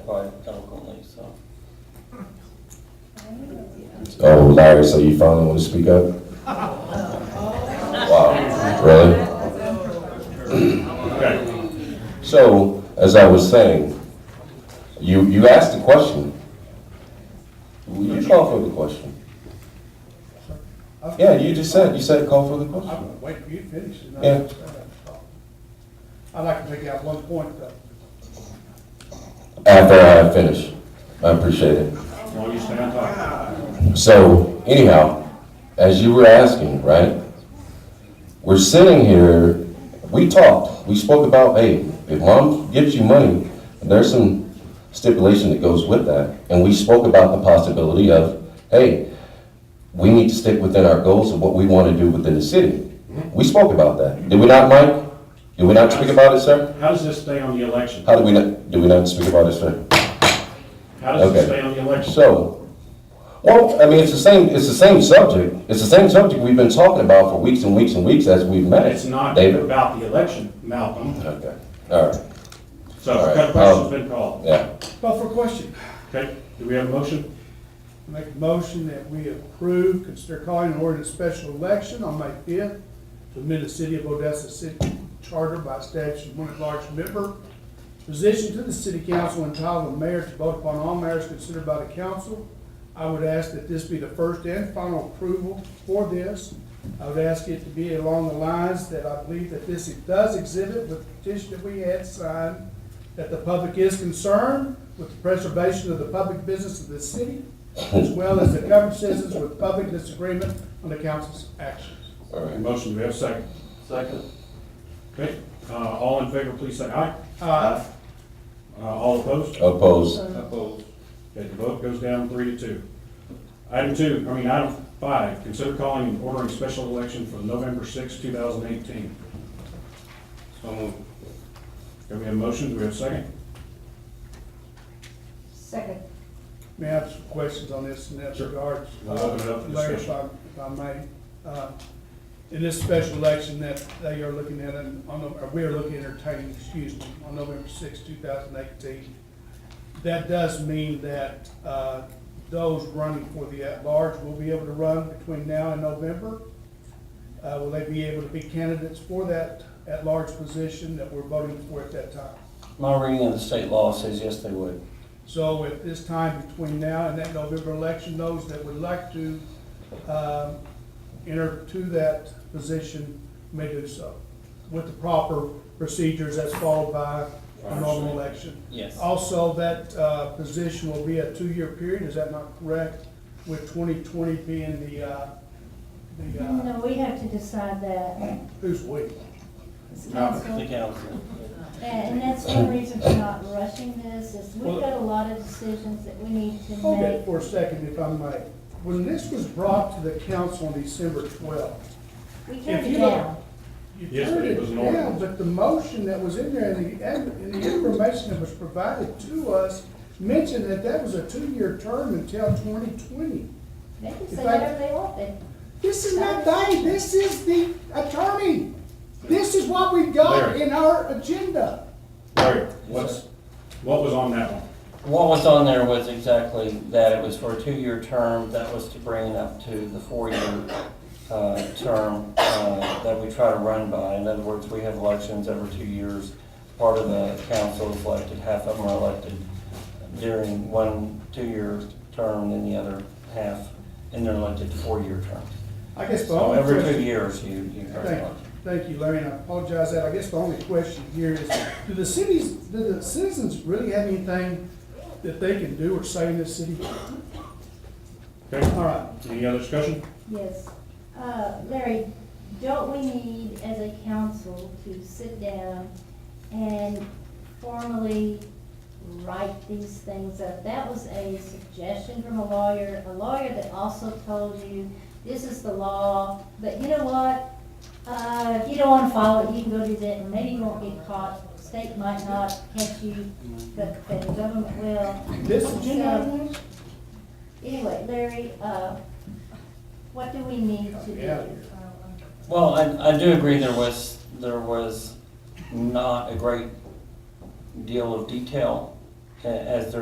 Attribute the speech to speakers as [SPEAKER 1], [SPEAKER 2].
[SPEAKER 1] quite eloquently, so.
[SPEAKER 2] Oh, Larry, so you finally want to speak up? Wow, really? So, as I was saying, you, you asked the question. You call for the question. Yeah, you just said, you said call for the question.
[SPEAKER 3] I'm waiting for you to finish. and I-
[SPEAKER 2] Yeah.
[SPEAKER 3] I'd like to make out one point, uh, though.
[SPEAKER 2] After I finish, I appreciate it.
[SPEAKER 4] While you stand up.
[SPEAKER 2] So anyhow, as you were asking, right? We're sitting here, we talked, we spoke about, hey, if mom gives you money, there's some stipulation that goes with that. And we spoke about the possibility of, hey, we need to stick within our goals of what we want to do within the city. We spoke about that. Did we not, Mike? Did we not speak about it, sir?
[SPEAKER 4] How does this stay on the election?
[SPEAKER 2] How did we not, did we not speak about it, sir?
[SPEAKER 4] How does this
[SPEAKER 2] Okay.
[SPEAKER 4] stay on the election?
[SPEAKER 2] So, well, I mean, it's the same, it's the same subject. It's the same subject we've been talking about for weeks and weeks and weeks as we've met.
[SPEAKER 4] It's not
[SPEAKER 2] uh, David.
[SPEAKER 4] about the election, Malcolm.
[SPEAKER 2] Okay, all right,
[SPEAKER 4] So
[SPEAKER 2] All right,
[SPEAKER 4] that
[SPEAKER 2] um,
[SPEAKER 4] question's been called.
[SPEAKER 2] yeah.
[SPEAKER 3] Call for a question.
[SPEAKER 4] Okay, do we have a motion?
[SPEAKER 3] Make a motion that we approve, consider calling an ordinance special election on May fifth to amend the city of Odessa city charter by statute one at-large member position to the city council entitled the mayor to vote upon all matters considered by the council. I would ask that this be the first and final approval for this. I would ask it to be along the lines that I believe that this does exhibit with the petition that we had signed, that the public is concerned with the preservation of the public business of the city, as well as the covered citizens with public disagreement on the council's actions.
[SPEAKER 2] All right.
[SPEAKER 4] Motion, do we have a second?
[SPEAKER 1] Second.
[SPEAKER 4] Okay, uh, all in favor, please say aye.
[SPEAKER 3] Uh,
[SPEAKER 4] Uh, all opposed?
[SPEAKER 2] Opposed,
[SPEAKER 4] Opposed. Okay, the vote goes down three to two. Item two, I mean, item five, consider calling and ordering special election for November sixth, two thousand eighteen. So moved. Do we have a motion? Do we have a second?
[SPEAKER 5] Second.
[SPEAKER 3] May I have some questions on this in that
[SPEAKER 4] Sure.
[SPEAKER 3] regard? Uh,
[SPEAKER 4] We'll open it up for
[SPEAKER 3] Larry, if I,
[SPEAKER 4] discussion.
[SPEAKER 3] if I may, uh, in this special election that they are looking at, and on, the- or we are looking at entertaining, excuse me, on November sixth, two thousand eighteen, that does mean that, uh, those running for the at-large will be able to run between now and November? Uh, will they be able to be candidates for that at-large position that we're voting for at that time?
[SPEAKER 1] My reading of the state law says yes, they would.
[SPEAKER 3] So at this time between now and that November election, those that would like to um, enter to that position may do so with the proper procedures that's followed by a normal election.
[SPEAKER 1] Yes.
[SPEAKER 3] Also, that uh, position will be a two-year period, is that not correct? With 2020 being the, uh, the, uh,
[SPEAKER 5] No, we have to decide that.
[SPEAKER 3] who's we?
[SPEAKER 5] It's
[SPEAKER 1] The
[SPEAKER 5] council.
[SPEAKER 1] council.
[SPEAKER 5] And that's one reason for not rushing this, is we've got a lot of decisions that we need to
[SPEAKER 3] Hold that
[SPEAKER 5] make.
[SPEAKER 3] for a second if I may. When this was brought to the council on December 12th,
[SPEAKER 5] We
[SPEAKER 3] If
[SPEAKER 5] turned
[SPEAKER 3] you-
[SPEAKER 5] it down.
[SPEAKER 3] You
[SPEAKER 4] Yes,
[SPEAKER 3] turned
[SPEAKER 4] but it was an
[SPEAKER 3] down,
[SPEAKER 4] ordinance.
[SPEAKER 3] But the motion that was in there and the, and the information that was provided to us mentioned that that was a two-year term until twenty twenty.
[SPEAKER 5] They can
[SPEAKER 3] In
[SPEAKER 5] say
[SPEAKER 3] fact-
[SPEAKER 5] whatever they want, then.
[SPEAKER 3] This is not they, this is the attorney. This is what we got
[SPEAKER 4] Larry.
[SPEAKER 3] in our agenda.
[SPEAKER 4] Larry, what's, what was on that one?
[SPEAKER 1] What was on there was exactly that it was for a two-year term, that was to bring it up to the four-year uh, term uh, that we try to run by. In other words, we have elections every two years. Part of the council is elected, half of them are elected during one two-year term, and the other half, and they're elected to four-year terms.
[SPEAKER 3] I guess the
[SPEAKER 1] So
[SPEAKER 3] only
[SPEAKER 1] every two
[SPEAKER 3] question.
[SPEAKER 1] years, you, you have
[SPEAKER 3] Thank,
[SPEAKER 1] elections.
[SPEAKER 3] thank you, Larry, and I apologize that, I guess the only question here is, do the cities, do the citizens really have anything that they can do or say in this city?
[SPEAKER 4] Okay,
[SPEAKER 3] All right,
[SPEAKER 4] any other discussion?
[SPEAKER 5] Yes. Uh, Larry, don't we need, as a council, to sit down and formally write these things up? That was a suggestion from a lawyer, a lawyer that also told you, this is the law, but you know what? Uh, if you don't wanna follow it, you can go do that, and maybe you won't get caught, state might not catch you, but the government will.
[SPEAKER 3] this agenda item is?
[SPEAKER 5] Anyway, Larry, uh, what do we need to
[SPEAKER 3] Yeah.
[SPEAKER 5] do? Um,
[SPEAKER 1] Well, I, I do agree there was, there was not a great deal of detail a- as there